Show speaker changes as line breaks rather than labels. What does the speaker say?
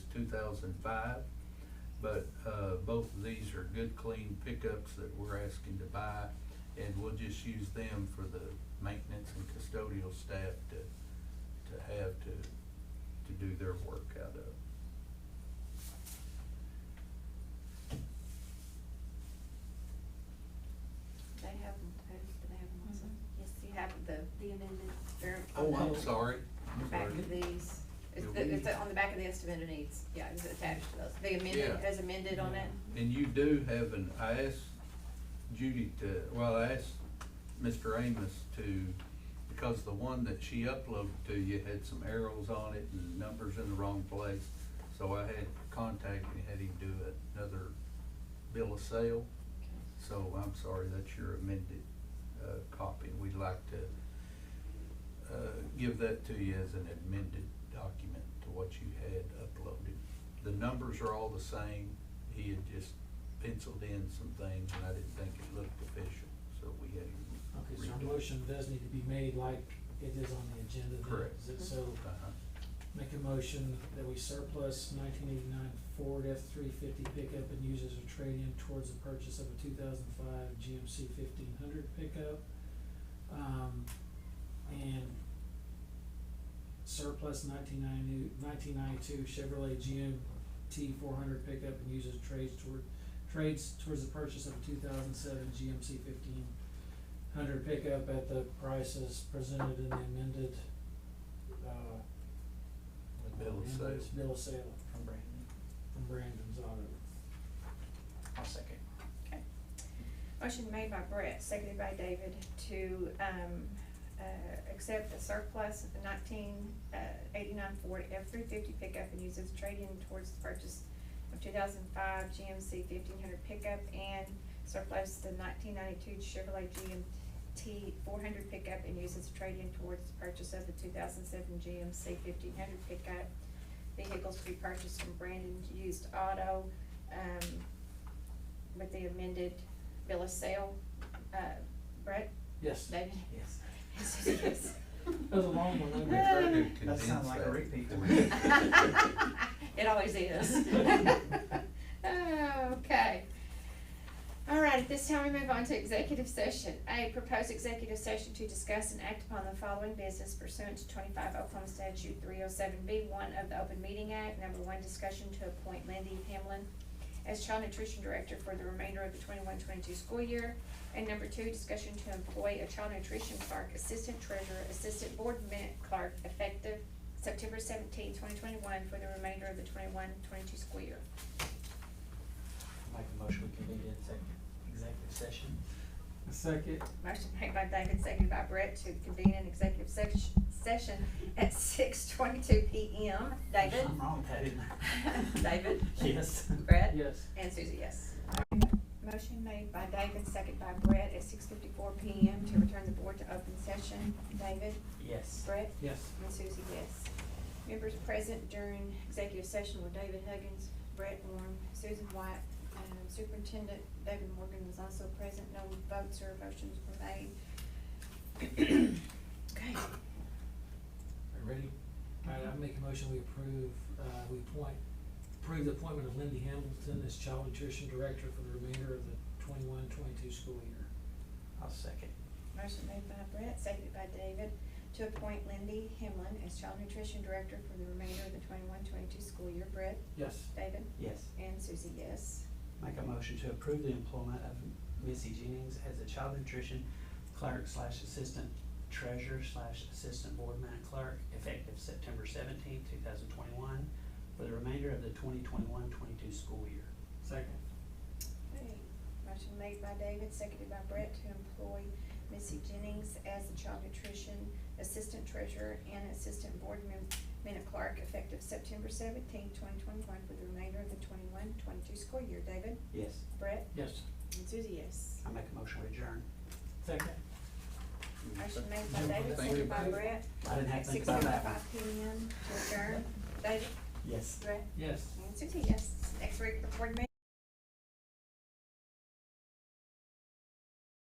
thousand five. But, uh, both of these are good, clean pickups that we're asking to buy, and we'll just use them for the maintenance and custodial staff to, to have to, to do their work out of.
They have them posted, they have them also. Yes, you have the,
the amendment.
they're on
Oh,
the.
I'm sorry, I'm
Back
sorry.
of these, it's,
Yeah,
the-
we-
it's on the back of the estimated needs, yeah, it's attached to those, the amended,
Yeah.
as amended on it.
And you do have an, I asked Judy to, well, I asked Mr. Amos to, because the one that she uploaded to you had some arrows on it and numbers in the wrong place. So I had contacted, and had him do another bill of sale. So I'm sorry, that's your amended, uh, copy. We'd like to, uh, give that to you as an amended document to what you had uploaded. The numbers are all the same. He had just penciled in some things and I didn't think it looked official, so we had him.
Okay, so
redo
a
it.
motion does need to be made like it is on the agenda then.
Correct.
Is it so,
Uh-huh.
make a motion that we surplus nineteen eighty-nine Ford F three fifty pickup and use as a trade-in towards the purchase of a two thousand five GMC fifteen hundred pickup. Um, and surplus 1992 1992 Chevrolet GMT four hundred pickup and use as trades toward, trades towards the purchase of a two thousand seven GMC fifteen hundred pickup at the prices presented in the amended, uh, what
Bill of
amendment?
sale.
Bill of sale
From Brandon.
from Brandon's Auto.
I'll second.
Motion made by Brett, seconded by David to, um, uh, accept the surplus of the nineteen, uh, eighty-nine Ford F-350 pickup and use as trade-in towards the purchase of two thousand five GMC fifteen hundred pickup and surplus the nineteen ninety-two Chevrolet GMT four hundred pickup and use as trade-in towards the purchase of the two thousand seven GMC fifteen hundred pickup. Vehicles to be purchased from Brandon Used Auto, um, with the amended bill of sale. Uh, Brett,
Yes, that
David?
Yes.
Yes.
was a long one,
We
wasn't it?
tried to
That
condense
sounds like a
that
repeat.
for you.
It always is. Okay. All right, at this time, we move on to executive session. A, proposed executive session to discuss and act upon the following business pursuant to twenty-five Oklahoma statute three oh seven B one of the Open Meeting Act. Number one, discussion to appoint Lindy Hamlin as child nutrition director for the remainder of the 21-22 school year. And number two, discussion to employ a child nutrition clerk, assistant treasurer, assistant board minute clerk, effective September seventeenth, twenty twenty-one, for the remainder of the 21-22 school year.
Make a motion, we convene in second executive session.
Second.
Motion made by David, seconded by Brett to convene an executive sex- session at six twenty-two P M. David?
I'm wrong with that, isn't I?
David?
Yes.
Brett?
Yes.
And Susie, yes. Motion made by David, seconded by Brett at six fifty-four P M to return the board to open session. David?
Yes.
Brett?
Yes.
And Susie, yes. Members present during executive session were David Huggins, Brett Warren, Susan White, um, Superintendent David Morgan was also present. No votes or motions were made. Okay,
Are you ready? All right, I make a motion, we approve, uh, we appoint, approve the appointment of Lindy Hamilton as Child Nutrition Director for the remainder of the twenty-one, twenty-two school year.
I'll second.
motion made by Brett, seconded by David, to appoint Lindy Hemlin as Child Nutrition Director for the remainder of the 21-22 school year. Brett,
Yes.
David,
Yes.
and Susie, yes.
Make a motion to approve the employment of Missy Jennings as a child nutrition clerk slash assistant treasurer slash assistant board minute clerk effective September seventeenth, two thousand twenty-one for the remainder of the 2021-22 school year.
Second.
Okay, motion made by David, seconded by Brett to employ Missy Jennings as the Child Nutrition Assistant Treasurer and Assistant Board Mem- Minute Clerk effective September seventeenth, twenty twenty-one for the remainder of the 21-22 school year. David,
Yes.
Brett,
Yes.
and Susie, yes.
I make a motion to adjourn.
Second.
Motion made by David,
Thank you.
seconded by Brett,
I didn't have
at
to think
six
about that one.
seventy-five P M to adjourn. David,
Yes.
Brett,
Yes.
and Susie, yes. Next week, the board meeting.